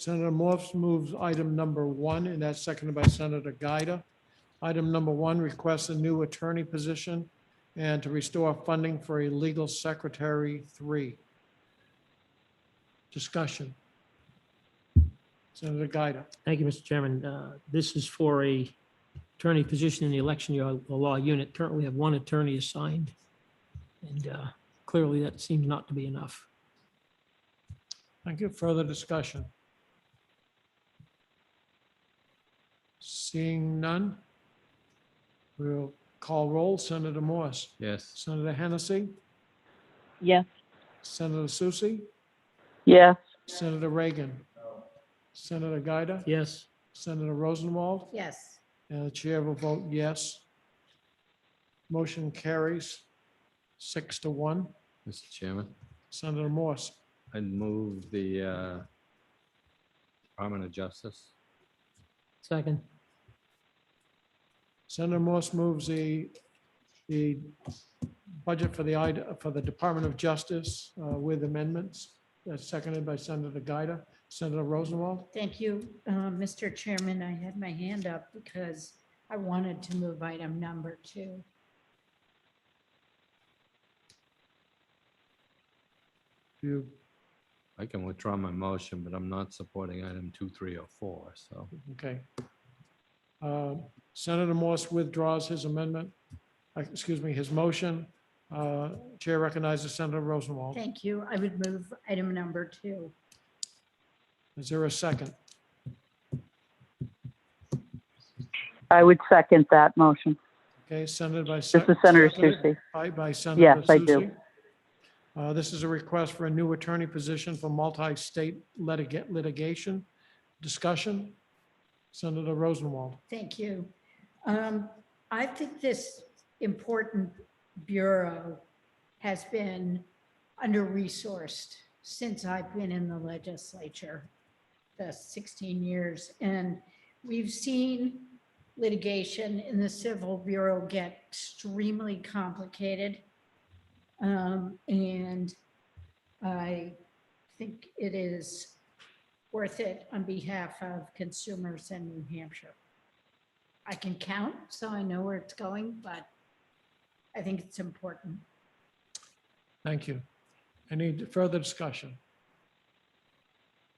Senator Morse moves item number one, and that's seconded by Senator Gaida. Item number one requests a new attorney position and to restore funding for a legal secretary three. Discussion. Senator Gaida. Thank you, Mr. Chairman. Uh, This is for a attorney position in the election year law unit. Currently, we have one attorney assigned. And uh, clearly, that seems not to be enough. Thank you. Further discussion? Seeing none, we'll call roll. Senator Morse, Yes. Senator Hennessy, Yes. Senator Susie, Yes. Senator Reagan, Senator Gaida, Yes, Senator Rosenwald, yes, and the chair will vote yes. Motion carries six to one. Mr. Chairman, Senator Morse, I'd move the uh, Department of Justice. second. Senator Morse moves the, the budget for the, id- for the Department of Justice uh, with amendments. That's seconded by Senator Gaida. Senator Rosenwald, thank you. Uh, Mr. Chairman, I had my hand up because I wanted to move item number two. do you, I can withdraw my motion, but I'm not supporting item two, three, or four, so. okay. Uh, Senator Morse withdraws his amendment, uh, excuse me, his motion. Uh, Chair recognizes Senator Rosenwald. Thank you. I would move item number two. Is there a second? I would second that motion. Okay, Senator by. This is Senator Susie. By, by Senator. Yes, I do. Susi. Uh, This is a request for a new attorney position for multi-state litiga- litigation. Discussion? Senator Rosenwald. Thank you. Um, I think this important bureau has been under-resourced since I've been in the legislature, the 16 years. And we've seen litigation in the Civil Bureau get extremely complicated. Um, And I think it is worth it on behalf of consumers in New Hampshire. I can count, so I know where it's going, but I think it's important. Thank you. Any further discussion?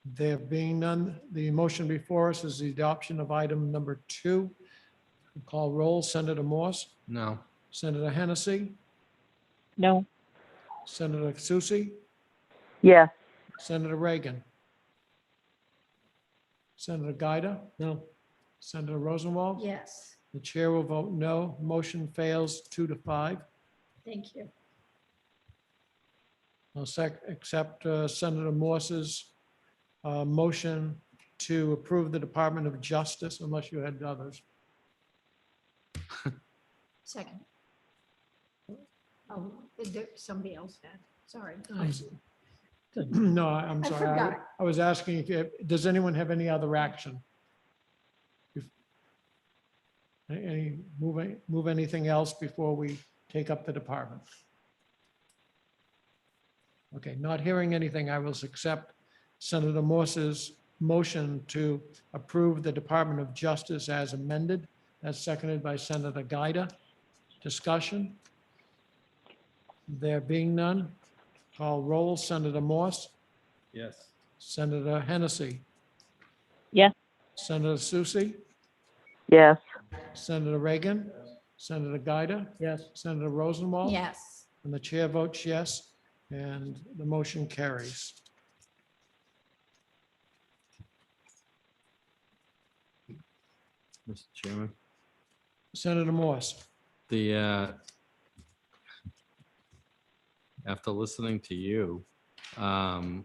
There being none, the motion before us is the adoption of item number two. Call roll, Senator Morse, No, Senator Hennessy, No. Senator Susie, Yes. Senator Reagan. Senator Gaida, No, Senator Rosenwald. Yes, The chair will vote no. Motion fails two to five. thank you. I'll sec, accept uh, Senator Morse's uh, motion to approve the Department of Justice unless you had others. Second. Oh, is there- somebody else had, sorry. I- No, I- I'm I sorry. I- forgot. I was asking, if- if, does anyone have any other action? If- a- Any, move, any- move anything else before we take up the department? Okay, not hearing anything, I will accept Senator Morse's motion to approve the Department of Justice as amended. That's seconded by Senator Gaida. Discussion? There being none, Call roll, Senator Morse, yes. Senator Hennessy. Yes. Senator Susie, Yes. Senator Reagan, Senator Gaida, yes, Senator Rosenwald. Yes, And the chair votes yes, and the motion carries. Mr. Chairman, Senator Morse, the, uh, after listening to you, um,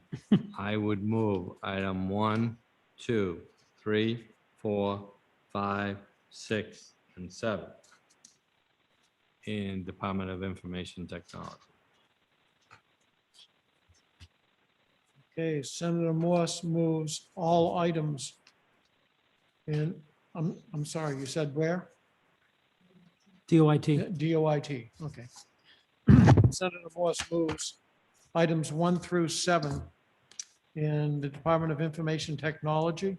I would move item one, two, three, four, five, six, and seven in Department of Information Technology. okay, Senator Morse moves all items. And I'm, I'm sorry, you said where? DOIT. DOIT, okay. Senator Morse moves items one through seven and the Department of Information Technology